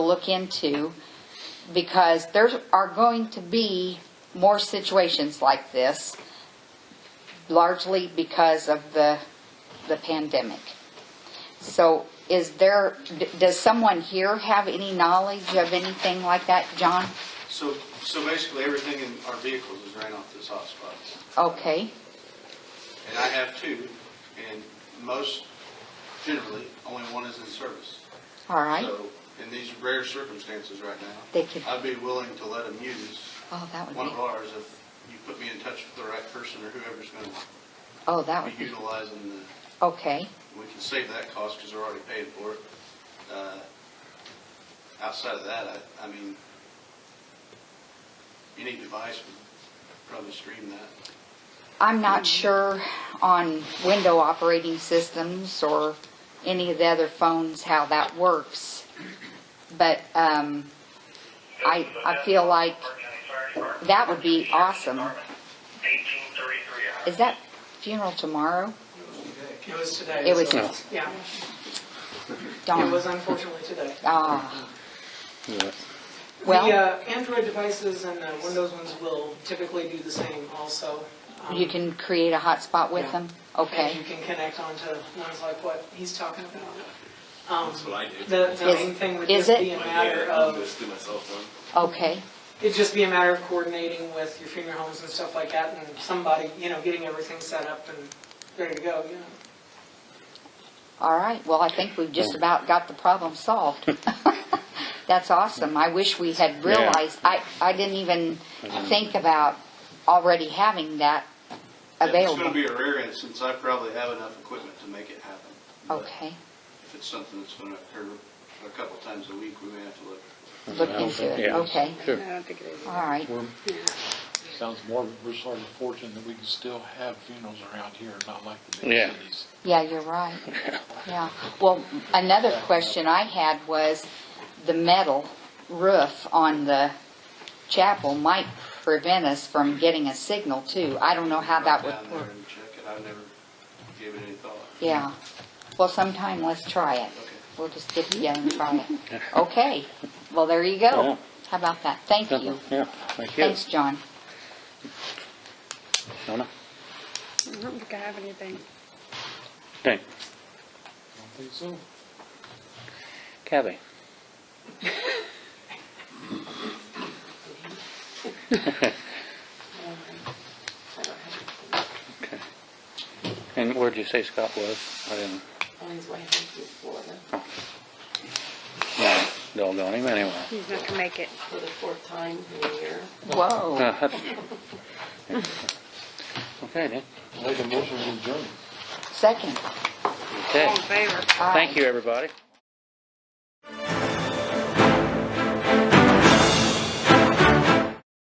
look into because there are going to be more situations like this, largely because of the, the pandemic. So is there, d- does someone here have any knowledge of anything like that, John? So, so basically, everything in our vehicles is ran off this hotspot. Okay, And I have two, and most, generally, only one is in service. all right. So, in these rare circumstances right now, They could, I'd be willing to let them use oh, that would one be, of ours if you put me in touch with the right person or whoever's going oh, that would to be be, utilizing the okay, We can save that cost because they're already paid for it. Uh, Outside of that, I, I mean, any device would probably stream that. I'm not sure on window operating systems or any of the other phones how that works. But um, I, I feel like that would be awesome. Is that funeral tomorrow? It was today. It was- so- Yeah, it was Dawn? unfortunately today. Ah, Yeah. The well, uh, Android devices and the Windows ones will typically do the same also. Um, you can create a hotspot with Yeah. them? And Okay. you can connect onto ones like what he's talking about. That's what I do. The, the Is- main thing would is just it? be a Like, matter yeah, I'll of, just do my cell phone. Okay, it'd just be a matter of coordinating with your funeral homes and stuff like that and somebody, you know, getting everything set up and ready to go, you know. all right. Well, I think we've Oh. just about got the problem solved. That's awesome. I wish we had realized, I, I didn't even Mm-hmm. think about already having that It's going to available. be a rare instance. I probably have enough equipment to make it happen. But Okay, If it's something that's going to occur a couple times a week, we may have to look. look into it, Yeah. okay, Sure. I don't think it is. all right. We're, sounds more, we're sort of fortunate that we can still have funerals around here, not like the big Yeah. cities. Yeah, you're right. Yeah. Well, another question I had was the metal roof on the chapel might prevent us from getting a signal too. I don't know how that Down would there work. and check it. I've never given it any thought. Yeah. Well, sometime let's try it. Okay. We'll just get together and try it. Okay. Well, there you go. Yeah. How about that? Thank you. Uh-huh. Yeah, thank you. Thanks, John. Nona? I don't think I have anything. Okay, I don't think so. Kathy? Okay. And where'd you say Scott was? I didn't, On his way home to Florida no, don't know him anyway. He's not gonna make it. for the fourth time in a year. Whoa. Uh, that's- Okay, then, Make a motion to adjourn. Second. All okay. in favor? Aye. Thank you, everybody.